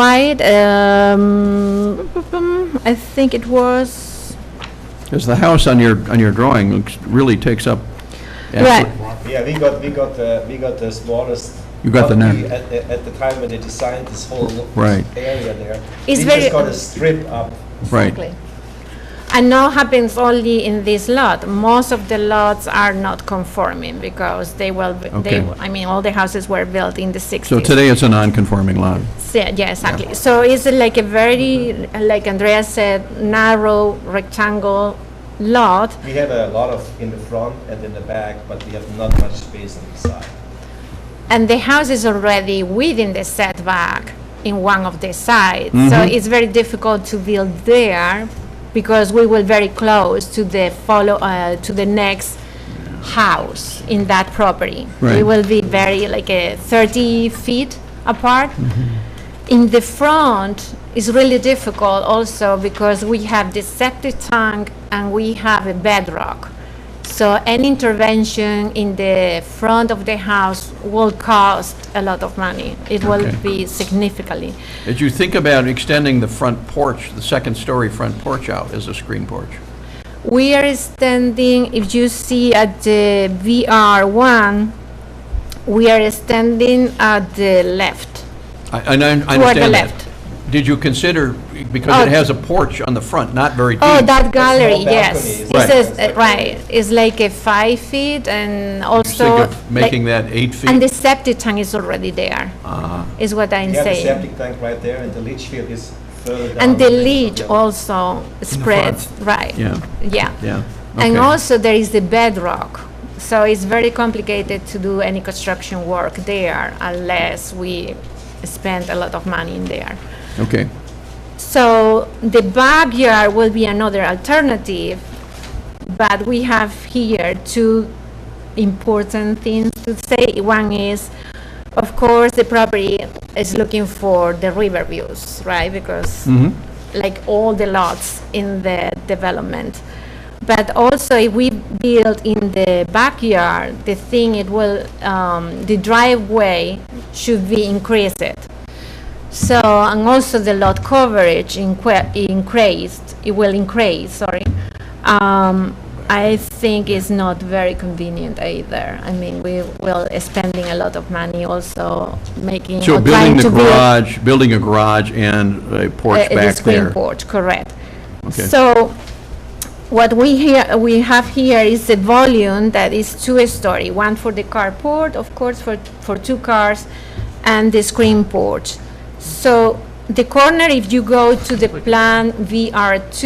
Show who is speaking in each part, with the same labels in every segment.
Speaker 1: wide, um, I think it was,
Speaker 2: Because the house on your, on your drawing looks, really takes up.
Speaker 1: right,
Speaker 2: absolute-
Speaker 3: Yeah, we got, we got, uh, we got the smallest.
Speaker 2: You got the
Speaker 3: property
Speaker 2: net.
Speaker 3: At, the- at the time when they designed this whole
Speaker 2: Right.
Speaker 3: area there.
Speaker 1: It's
Speaker 3: We
Speaker 1: very-
Speaker 3: just got a strip up.
Speaker 2: Right.
Speaker 1: exactly. And now happens only in this lot. Most of the lots are not conforming because they will, be- they,
Speaker 2: Okay.
Speaker 1: I mean, all the houses were built in the 60s.
Speaker 2: So today it's a non-conforming lot.
Speaker 1: So, Yeah, exactly. So it's like a very, like Andrea said, narrow rectangle lot.
Speaker 3: We have a lot of in the front and in the back, but we have not much space on the side.
Speaker 1: And the house is already within the setback in one of the sides. So
Speaker 2: Mhm.
Speaker 1: it's very difficult to build there because we were very close to the follow, uh, to the next house in that property. We
Speaker 2: Right.
Speaker 1: will be very, like, uh, 30 feet apart. In the front is really difficult also because we have the septic tank and we have a bedrock. So any intervention in the front of the house will cost a lot of money. It will
Speaker 2: Okay.
Speaker 1: be significantly.
Speaker 2: As you think about extending the front porch, the second-story front porch out as a screen porch,
Speaker 1: We are standing, if you see at the VR1, we are standing at the left.
Speaker 2: I, and I I
Speaker 1: Toward the
Speaker 2: understand that.
Speaker 1: left.
Speaker 2: Did you consider, because it
Speaker 1: Oh.
Speaker 2: has a porch on the front, not very deep?
Speaker 1: Oh, that gallery,
Speaker 3: balcony
Speaker 1: yes.
Speaker 3: is
Speaker 1: It
Speaker 2: Right.
Speaker 1: says,
Speaker 3: like-
Speaker 1: uh, right, it's like a five feet and
Speaker 2: Just think
Speaker 1: also.
Speaker 2: of Making
Speaker 1: like-
Speaker 2: that eight feet?
Speaker 1: And the septic tank is already there,
Speaker 2: Ah,
Speaker 1: is what I'm
Speaker 3: We have the
Speaker 1: saying.
Speaker 3: septic tank right there and the leach field is further down.
Speaker 1: And the
Speaker 3: than
Speaker 1: leach
Speaker 3: other.
Speaker 1: also spreads, right?
Speaker 2: Yeah.
Speaker 1: Yeah.
Speaker 2: yeah.
Speaker 1: And
Speaker 2: okay.
Speaker 1: also there is the bedrock. So it's very complicated to do any construction work there unless we spend a lot of money in there.
Speaker 2: Okay,
Speaker 1: So the backyard will be another alternative, but we have here two important things to say. One is, of course, the property is looking for the river views, right? Because
Speaker 2: mhm,
Speaker 1: like all the lots in the development. But also, if we build in the backyard, the thing it will, um, the driveway should be increased. So, and also the lot coverage inque- increased, it will increase, sorry. Um, I think it's not very convenient either. I mean, we will spending a lot of money also making,
Speaker 2: so
Speaker 1: or trying
Speaker 2: building the
Speaker 1: to build
Speaker 2: garage, building a garage and a porch
Speaker 1: uh,
Speaker 2: back
Speaker 1: The screen
Speaker 2: there.
Speaker 1: porch, correct.
Speaker 2: Okay.
Speaker 1: So what we here, we have here is a volume that is two-story, one for the carport, of course, for, for two cars, and the screen porch. So the corner, if you go to the plan VR2,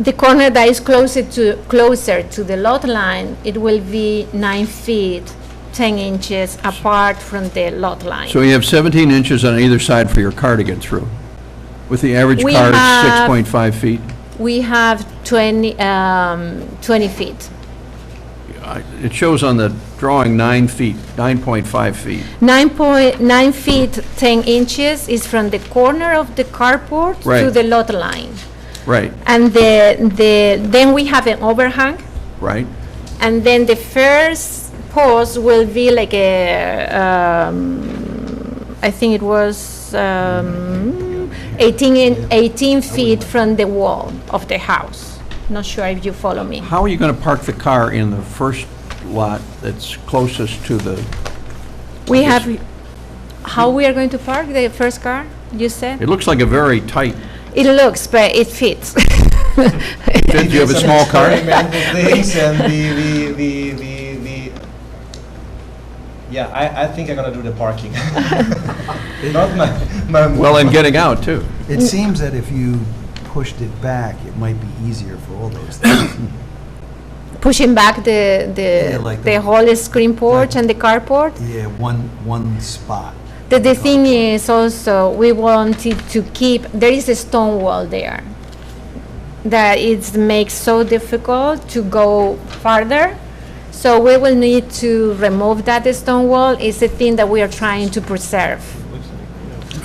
Speaker 1: the corner that is closer to, closer to the lot line, it will be nine feet, 10 inches apart from the lot line.
Speaker 2: So you have 17 inches on either side for your car to get through, with the average
Speaker 1: We
Speaker 2: car at
Speaker 1: have-
Speaker 2: 6.5 feet?
Speaker 1: We have 20, um, 20 feet.
Speaker 2: I- It shows on the drawing nine feet, 9.5 feet,
Speaker 1: 9.9 feet, 10 inches is from the corner of the carport to
Speaker 2: Right.
Speaker 1: the lot line.
Speaker 2: right,
Speaker 1: And the, the, then we have an overhang,
Speaker 2: right?
Speaker 1: and then the first post will be like a, um, I think it was, um, 18, in- 18 feet from the wall of the house. Not sure if you follow me.
Speaker 2: How are you going to park the car in the first lot that's closest to the,
Speaker 1: We have, how we are going to park the first car, you said?
Speaker 2: it looks like a very tight,
Speaker 1: It looks, but it fits.
Speaker 2: do you have a
Speaker 3: Some
Speaker 2: small car?
Speaker 3: experimental things and we, we, we, we, we, yeah, I, I think I'm gonna do the parking. Not my, my.
Speaker 2: Well, and getting out, too.
Speaker 4: It
Speaker 1: Mm.
Speaker 4: seems that if you pushed it back, it might be easier for all those things.
Speaker 1: Pushing back the,
Speaker 4: Yeah,
Speaker 1: the,
Speaker 4: like
Speaker 1: the
Speaker 4: the-
Speaker 1: whole screen porch and the carport.
Speaker 4: Yeah, one, one spot.
Speaker 1: The, the thing is also, we wanted to keep, there is a stone wall there that it makes so difficult to go farther. So we will need to remove that stone wall. It's a thing that we are trying to preserve.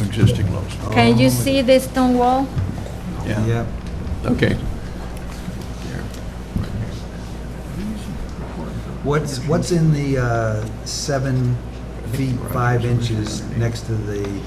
Speaker 2: Existing lots.
Speaker 1: Can
Speaker 4: Oh.
Speaker 1: you see the stone wall?
Speaker 4: uh,
Speaker 2: Yeah, okay.
Speaker 4: What's, what's in the uh, seven feet, five inches next to the